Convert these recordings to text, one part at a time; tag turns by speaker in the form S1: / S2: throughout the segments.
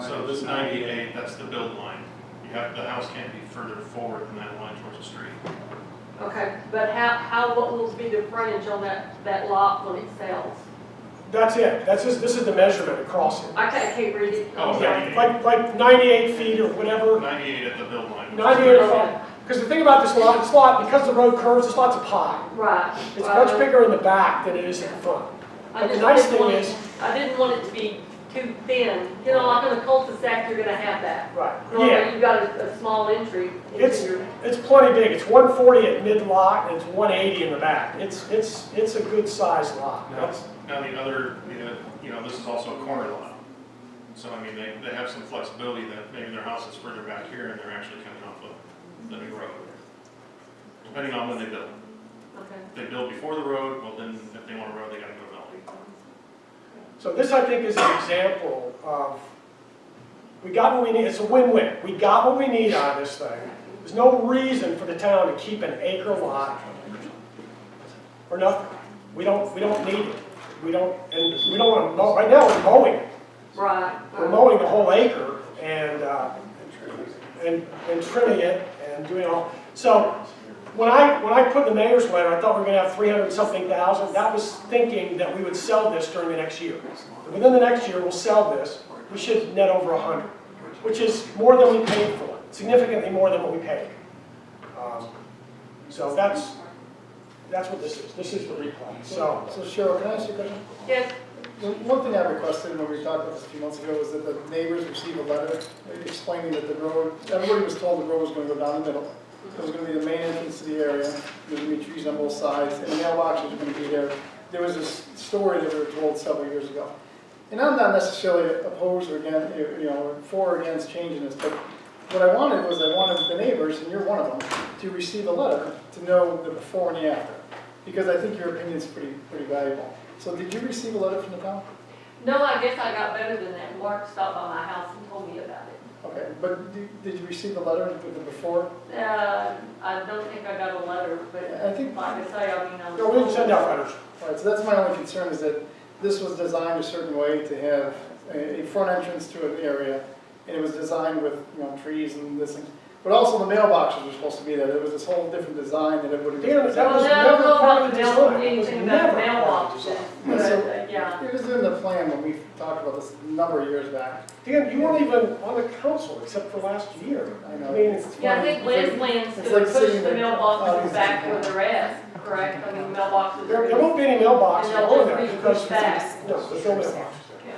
S1: So this ninety-eight, that's the build line. You have, the house can't be further forward than that line towards the street.
S2: Okay, but how, how, what will be the frontage on that, that lot when it sells?
S3: That's it, that's just, this is the measurement across it.
S2: I can't keep reading.
S1: Oh, okay.
S3: Yeah, like, like ninety-eight feet or whatever,
S1: Ninety-eight at the build line. which is-
S3: ninety-eight feet. Because the thing about this lot, this lot, because the road curves, this lot's a pie.
S2: Right.
S3: It's much bigger in the back than it is in the front.
S2: I
S3: But the
S2: just
S3: nice
S2: didn't
S3: thing
S2: want it-
S3: is-
S2: I didn't want it to be too thin, you know, like in a cul-de-sac, you're gonna have that.
S3: Right. Yeah,
S2: Normally, you've got a, a small entry
S3: It's-
S2: into your,
S3: it's plenty big, it's one forty at mid-lot, and it's one eighty in the back. It's, it's, it's a good-sized lot.
S1: Now,
S3: That's-
S1: now the other, the, uh, you know, this is also a corner lot. So I mean, they, they have some flexibility that maybe their house is further back here and they're actually coming off of the new road. Depending on when they build.
S2: okay.
S1: If they build before the road, well then, if they want a road, they gotta go valley.
S3: So this, I think, is an example of, we got what we need, it's a win-win. We got what we need out of this thing. There's no reason for the town to keep an acre lot for nothing. We don't, we don't need it. We don't, and we don't want to mow, right now, we're mowing it.
S2: Right.
S3: We're mowing the whole acre and, uh, and, and trimming it and doing all, so when I, when I put in the mayor's letter, I thought we were gonna have three hundred something thousand, that was thinking that we would sell this during the next year. Within the next year, we'll sell this, we should net over a hundred, which is more than we paid for, significantly more than what we paid. Um, So that's, that's what this is, this is the replat, so.
S4: So Cheryl, can I ask you a question?
S2: Yes,
S4: The one thing I requested when we talked about this a few months ago was that the neighbors receive a letter explaining that the road, everybody was told the road was gonna go down the middle. It was gonna be the main entrance to the area, there's gonna be trees on both sides, and the mailboxes are gonna be there. There was this story that we were told several years ago. And I'm not necessarily opposed or against, you know, for or against changing this, but what I wanted was I wanted the neighbors, and you're one of them, to receive a letter to know the before and the after. Because I think your opinion's pretty, pretty valuable. So did you receive a letter from the town?
S2: no, I guess I got better than that, Mark stopped by my house and told me about it.
S4: Okay, but do- did you receive the letter with the before?
S2: Uh, I don't think I got a letter,
S4: I
S2: but
S4: think-
S2: like I say, I mean, I was.
S3: No, we didn't send out letters.
S4: All right, so that's my only concern is that this was designed a certain way to have a, a front entrance to an area, and it was designed with, you know, trees and this and, but also the mailboxes were supposed to be there. There was this whole different design that it would have.
S3: Damn it, that
S2: Well,
S3: was
S2: no,
S3: never
S2: no,
S3: part of the
S2: no,
S3: design. It was
S2: Anything about
S3: never part of the
S2: mailboxes,
S3: design.
S2: but,
S4: So-
S2: uh, yeah.
S4: It was in the plan when we talked about this a number of years back.
S3: Dan, you weren't even on the council except for last year.
S4: I know.
S3: mean, it's.
S2: Yeah, I think Liz plans to
S4: It's like
S2: push
S4: sitting
S2: the
S4: there.
S2: mailboxes back with the rest, correct? I mean, mailboxes.
S3: There,
S2: are-
S3: there won't be any mailboxes
S2: And they'll
S3: on there
S2: just be
S3: because.
S2: pushed back.
S3: No, there's no mailboxes.
S2: Yeah.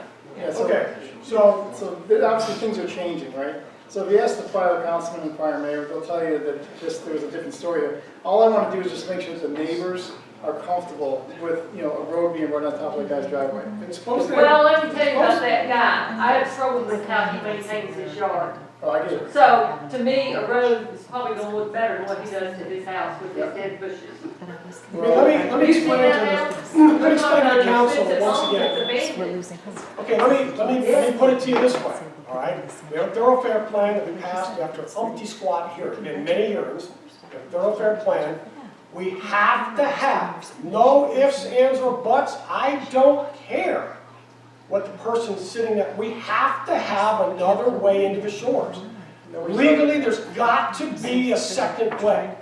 S4: Yeah, so-
S3: Okay, so,
S4: So there- obviously, things are changing, right? So if you ask the prior councilman and prior mayor, they'll tell you that just, there was a different story here. All I want to do is just make sure that the neighbors are comfortable with, you know, a road being right on top of a guy's driveway.
S3: it's supposed to.
S2: Well, let me tell you about that guy. I have trouble with how he maintains his yard.
S4: Oh, I get it.
S2: So to me, a road is probably gonna look better than what he does to his house with his dead bushes.
S3: I mean, let me, let me
S2: You see
S3: explain
S2: that
S3: to
S2: now?
S3: the, let me explain to the council
S2: It's
S3: once
S2: long,
S3: again.
S2: it's a
S5: We're
S2: big-
S5: losing hope.
S3: Okay, let me, let me, let me put it to you this way, all right? We have a thoroughfare plan that we passed after umpty squat here, it's been many years. We have a thoroughfare plan. We have to have, no ifs, ands, or buts, I don't care what the person's sitting at. We have to have another way into the shores. Legally, there's got to be a second way.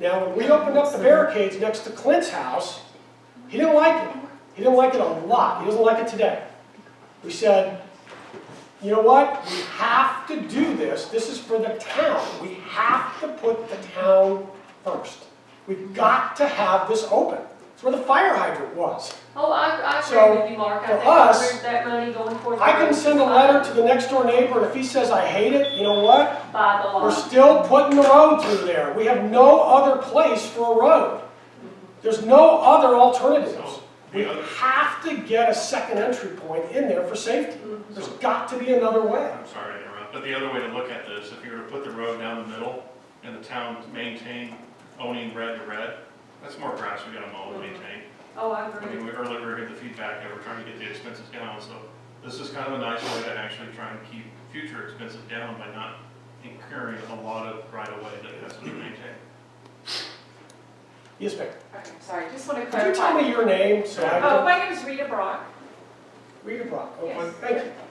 S3: Now, when we opened up the barricades next to Clint's house, he didn't like it. He didn't like it a lot. He doesn't like it today. We said, you know what? We have to do this. This is for the town. We have to put the town first. We've got to have this open. It's where the fire hydrant was.
S2: Oh, I, I
S3: So,
S2: agree with you, Mark. I
S3: for
S2: think there's
S3: us,
S2: that money going towards.
S3: I can send a letter to the next door neighbor, and if he says, I hate it, you know what?
S2: By the
S3: We're
S2: law.
S3: still putting the road through there. We have no other place for a road. There's no other alternatives. We have to get a second entry point in there for safety. There's got to be another way.
S1: I'm sorry to interrupt, but the other way to look at this, if you were to put the road down the middle and the town maintain owning red to red, that's more grass we gotta mow and maintain.
S2: Oh, I
S1: I
S2: agree.
S1: mean, we earlier we heard the feedback that we're trying to get the expenses down, so this is kind of a nice way to actually try and keep future expenses down by not incurring a lot of right of way that has to be maintained.
S3: Yes, ma'am.
S6: Okay, sorry, just want to
S3: Could you tell
S6: clarify.
S3: me your name so I
S6: Oh,
S3: can?
S6: my name is Rita Brock.
S3: Read your block.
S6: Yes.
S3: Thank you.